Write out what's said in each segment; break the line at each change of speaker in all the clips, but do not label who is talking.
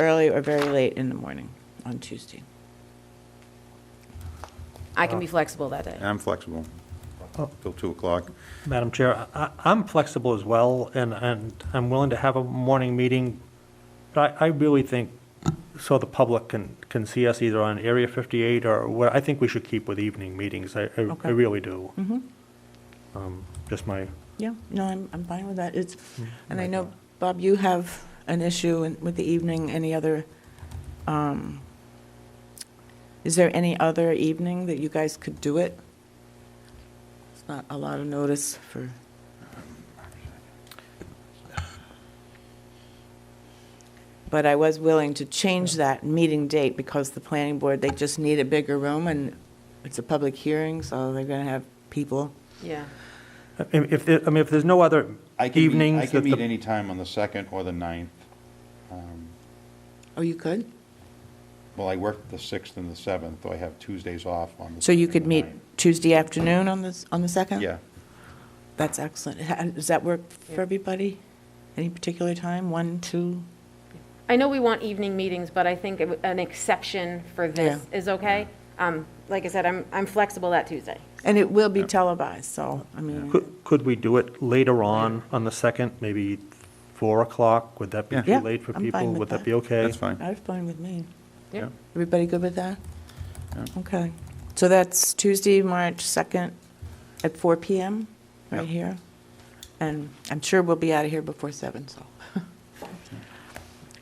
early or very late in the morning on Tuesday.
I can be flexible that day.
I'm flexible
Oh.
till 2 o'clock.
Madam Chair, I- I'm flexible as well, and, and I'm willing to have a morning meeting, but I, I really think, so the public can, can see us either on Area 58 or what, I think we should keep with evening meetings, I, I- I
Okay.
really do. Um, Just my,
Mm-hmm. Yeah, no, I'm, I'm fine with that. It's, and I know, Bob, you have an issue in- with the evening, any other, um, is there any other evening that you guys could do it? It's not a lot of notice for, but I was willing to change that meeting date because the planning board, they just need a bigger room and it's a public hearing, so they're going to have people.
Yeah.
I- if, there- I mean, if there's no other
I can meet, I
evenings that
can meet
the,
any time on the 2nd or the 9th. Um,
Oh, you could?
Well, I work the 6th and the 7th, though I have Tuesdays off on the
So you
2nd
could
and the
meet
9th.
Tuesday afternoon on this, on the second?
Yeah,
That's excellent. Ha- Does that work for everybody? Any particular time, one, two?
I know we want evening meetings, but I think it w- an exception for this is okay. Um, Like I said, I'm, I'm flexible that Tuesday.
And it will be televised, so, I mean,
could, could we do it later on, on the 2nd, maybe 4 o'clock? Would that be
Yeah.
too
Yeah,
late for
I'm fine
people?
with
Would
that.
that be okay?
that's fine.
that's fine with me.
Yeah.
Everybody good with that?
Yeah.
Okay. So that's Tuesday, March 2nd at four PM, right
Yeah.
here. And I'm sure we'll be out of here before seven. so.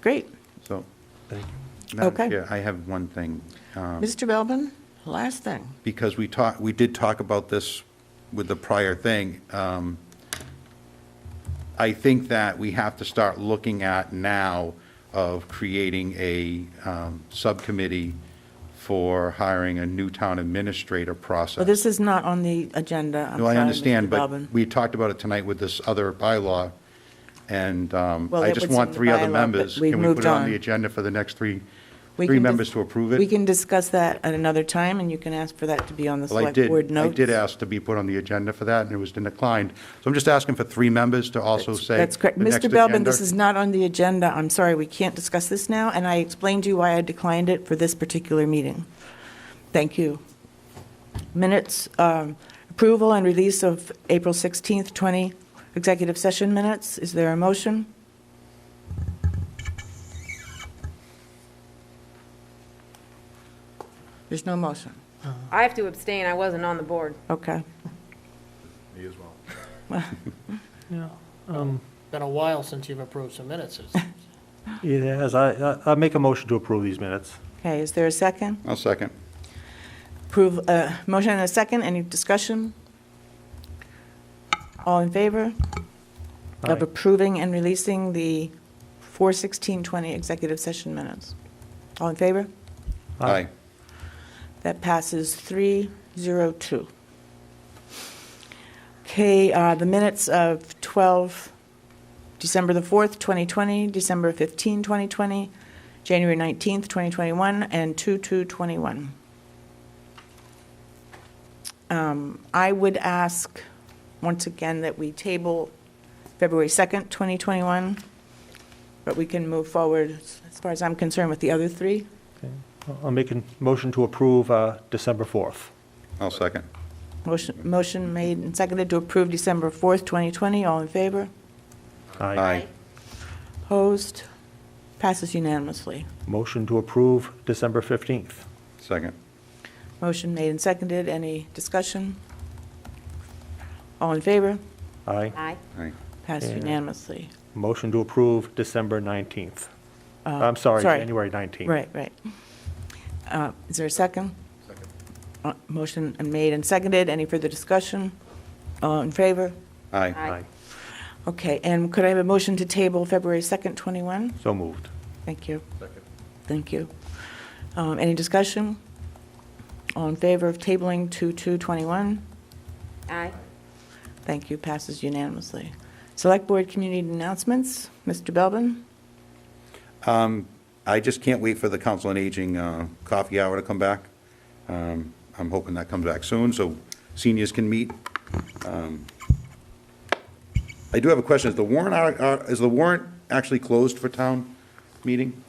Great.
So,
Thank you.
Madam
Okay.
Chair, I have one thing. um,
Mr. Belbin, last thing.
because we talked, we did talk about this with the prior thing. um, I think that we have to start looking at now of creating a um, subcommittee for hiring a new town administrator
Well,
process.
this is not on the agenda. I'm
No, I
sorry, Mr.
understand,
Belbin.
but we talked about it tonight with this other bylaw, and um,
Well,
I
it
just
was
want
in the
three
bylaw,
other
but
members.
we've
Can we put
moved
it on
on.
the agenda for the next three,
We
three
can dis-
members to approve it?
We can discuss that at another time, and you can ask for that to be on the
Well, I
select board
did, I
notes.
did ask to be put on the agenda for that, and it was declined. So I'm just asking for three members to also say.
That's correct.
the next
Mr. Belbin,
agenda.
this is not on the agenda. I'm sorry, we can't discuss this now, and I explained to you why I declined it for this particular meeting. Thank you. Minutes, um, approval and release of April 16th, 20 executive session minutes. Is there a motion? There's no motion.
I have to abstain, I wasn't on the board.
Okay.
Been a while since you've approved some minutes. It's-
Yes, I, I- I make a motion to approve these minutes.
Okay, is there a second?
I'll second.
Approve, uh, motion and a second, any discussion? All in favor of
Aye.
approving and releasing the 41620 executive session minutes? All in favor?
Aye.
Aye.
That passes 302. Okay, uh, the minutes of 12, December the 4th, 2020, December 15, 2020, January 19th, 2021, and 2/2/21. Um, I would ask, once again, that we table February 2nd, 2021, but we can move forward, as far as I'm concerned, with the other three.
Okay. I'll- I'll make a motion to approve uh, December 4th.
I'll second.
Motion, motion made and seconded to approve December 4th, 2020. All in favor?
Aye.
Opposed? Passes unanimously.
Motion to approve December 15th.
Second.
Motion made and seconded. Any discussion? All in favor?
Aye.
Aye.
Aye.
Passes
Yeah.
unanimously.
Motion to approve December 19th. I'm sorry,
Uh, sorry.
January 19th.
Right, right. Uh, Is there a second?
Second.
Uh, Motion made and seconded. Any further discussion? All in favor?
Aye.
Aye.
Aye.
Okay, and could I have a motion to table February 2nd, 21?
So moved.
Thank you. Thank you. Um, Any discussion? All in favor of tabling 2221?
Aye.
Thank you, passes unanimously. Select Board Community Announcements, Mr. Belbin?
I just can't wait for the Council on Aging uh, coffee hour to come back. Um, I'm hoping that comes back soon, so seniors can meet. Um, uh, I do have a question. Is the warrant, ar- ar- is the warrant actually closed for town meeting?